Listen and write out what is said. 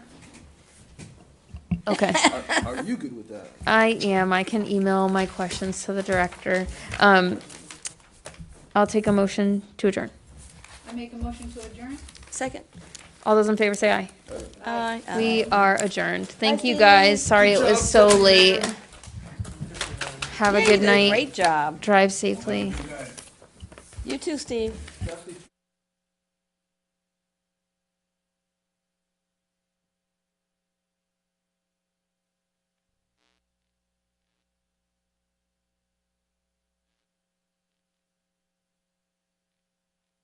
Okay. Are, are you good with that? I am. I can email my questions to the director. Um, I'll take a motion to adjourn. I make a motion to adjourn? Second? All those in favor say aye. Aye. We are adjourned. Thank you Bye, guys. Sorry it was so late. Have a Yeah, you good did a night. Great job. Drive safely. You too, Steve.